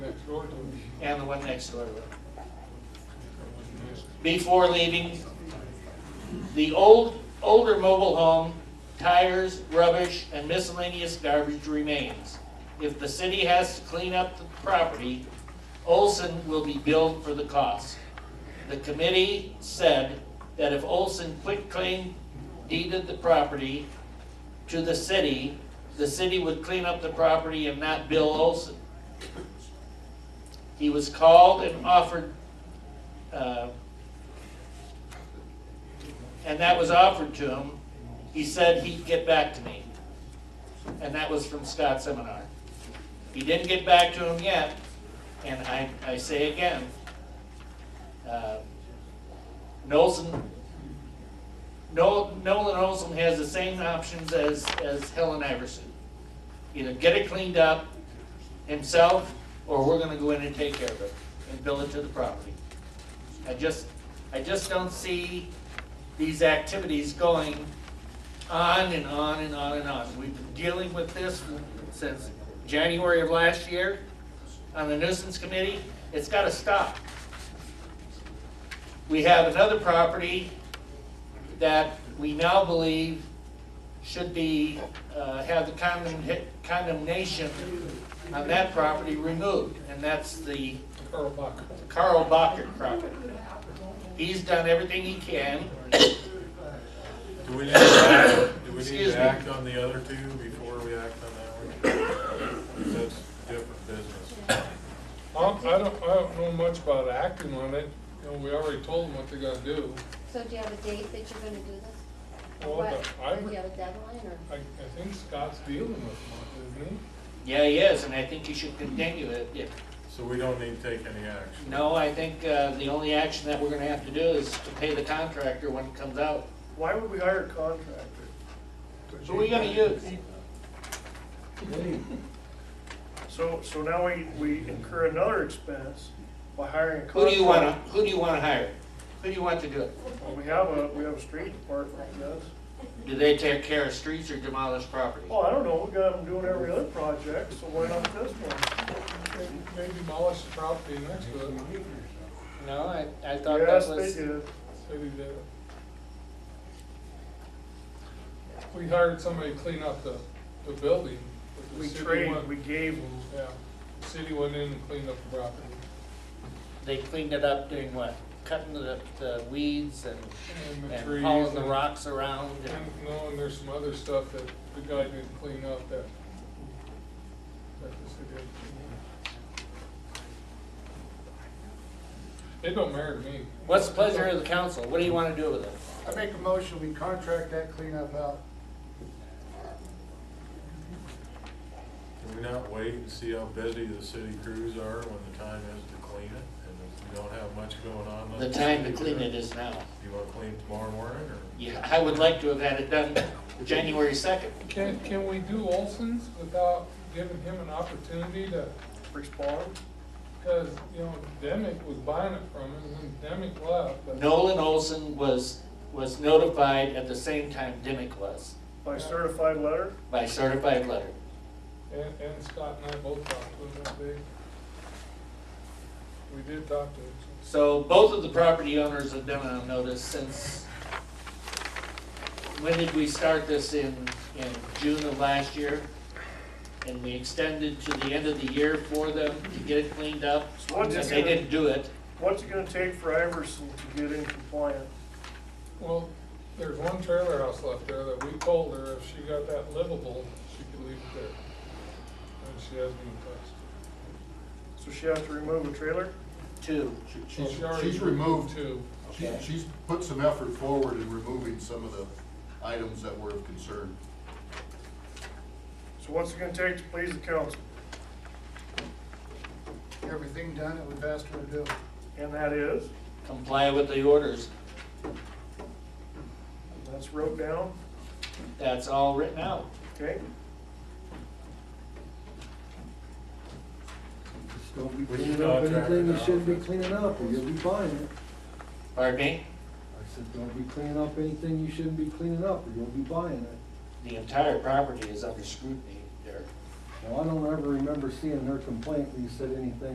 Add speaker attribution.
Speaker 1: and the one next door to it. Before leaving, the old, older mobile home, tires, rubbish, and miscellaneous garbage remains. If the city has to clean up the property, Olson will be billed for the cost. The committee said that if Olson quitclaim deeded the property to the city, the city would clean up the property and not bill Olson. He was called and offered, uh, and that was offered to him. He said he'd get back to me. And that was from Scott Seminar. He didn't get back to him yet, and I, I say again, uh, Nolson, Nol- Nolan Olson has the same options as, as Helen Iverson. Either get it cleaned up himself, or we're gonna go in and take care of it and bill it to the property. I just, I just don't see these activities going on and on and on and on. We've been dealing with this since January of last year on the nuisance committee. It's gotta stop. We have another property that we now believe should be, uh, have the condemn- condemnation on that property removed, and that's the
Speaker 2: Carl Buck.
Speaker 1: Carl Bacher property. He's done everything he can.
Speaker 3: Do we need to act, do we need
Speaker 1: Excuse me.
Speaker 3: to act on the other two before we act on that one? That's different business.
Speaker 2: I don't, Um, I don't, I don't know much about acting on it, you know, we already told them what they gotta do.
Speaker 4: So do you have a date that you're gonna do this? Or
Speaker 2: Well,
Speaker 4: what?
Speaker 2: I-
Speaker 4: Do you have a deadline or?
Speaker 2: I, I think Scott's dealing with them, isn't he?
Speaker 1: Yeah, he is, and I think he should continue it. If-
Speaker 3: So we don't need to take any action.
Speaker 1: No, I think, uh, the only action that we're gonna have to do is to pay the contractor when it comes out.
Speaker 5: Why would we hire a contractor?
Speaker 1: So we gonna use,
Speaker 5: So, so now we, we incur another expense by hiring a contractor.
Speaker 1: who do you wanna, who do you wanna hire? Who do you want to do it?
Speaker 5: Well, We have a, we have a street department, I guess.
Speaker 1: Do they take care of streets or demolish property?
Speaker 5: Well, I don't know, we got them doing every other project, so why not this one?
Speaker 2: Maybe demolish the property next to it,
Speaker 1: No, I, I thought that
Speaker 5: Yes,
Speaker 1: was,
Speaker 5: they did.
Speaker 2: maybe the. We hired somebody to clean up the, the building. but the
Speaker 5: We
Speaker 2: city
Speaker 5: traded,
Speaker 2: went-
Speaker 5: we gave them.
Speaker 2: Yeah, the city went in and cleaned up the property.
Speaker 1: they cleaned it up doing what? Cutting the, the weeds and,
Speaker 2: And the trees
Speaker 1: and hauling the
Speaker 2: and-
Speaker 1: rocks around
Speaker 2: And,
Speaker 1: and,
Speaker 2: no, and there's some other stuff that the guy didn't clean up that, that the city had. It don't matter to me.
Speaker 1: what's the pleasure of the council? What do you wanna do with it?
Speaker 6: I make a motion, we contract that cleanup out.
Speaker 3: Can we not wait and see how busy the city crews are when the time is to clean it? And if we don't have much going on.
Speaker 1: The
Speaker 3: let
Speaker 1: time to
Speaker 3: city do
Speaker 1: clean it is now.
Speaker 3: You want to clean tomorrow morning or?
Speaker 1: Yeah, I would like to have had it done January second.
Speaker 2: Can, can we do Olson's without giving him an opportunity to,
Speaker 5: Respond?
Speaker 2: cause, you know, Demick was buying it from him and Demick left, but.
Speaker 1: Nolan Olson was, was notified at the same time Dimick was,
Speaker 5: By certified letter?
Speaker 1: by certified letter.
Speaker 2: And, and Scott and I both talked to him that day. We did talk to him.
Speaker 1: So both of the property owners have been on notice since, when did we start this in, in June of last year? And we extended to the end of the year for them to get it cleaned up,
Speaker 5: So
Speaker 1: and
Speaker 5: what's it
Speaker 1: they
Speaker 5: gonna-
Speaker 1: didn't do it.
Speaker 5: What's it gonna take for Iverson to get in compliant?
Speaker 2: Well, there's one trailer house left there that we told her if she got that livable, she could leave it there. And she hasn't been touched.
Speaker 5: So she has to remove a trailer?
Speaker 1: Two,
Speaker 6: She's,
Speaker 2: She already
Speaker 6: she's removed,
Speaker 2: two.
Speaker 6: she, she's put some effort forward in removing some of the items that were of concern.
Speaker 5: So what's it gonna take to please the council?
Speaker 6: Everything done that we've asked her to do.
Speaker 5: And that is,
Speaker 1: comply with the orders.
Speaker 5: that's wrote down,
Speaker 1: That's all written out.
Speaker 5: okay?
Speaker 7: Don't be
Speaker 3: We
Speaker 7: cleaning
Speaker 3: can
Speaker 7: up
Speaker 3: contract
Speaker 7: anything
Speaker 3: it
Speaker 7: you
Speaker 3: out.
Speaker 7: shouldn't be cleaning up, or you'll be buying it.
Speaker 1: Pardon me?
Speaker 7: I said, don't be cleaning up anything you shouldn't be cleaning up, or you'll be buying it.
Speaker 1: The entire property is under scrutiny there.
Speaker 7: Now, I don't ever remember seeing her complaint, when you said anything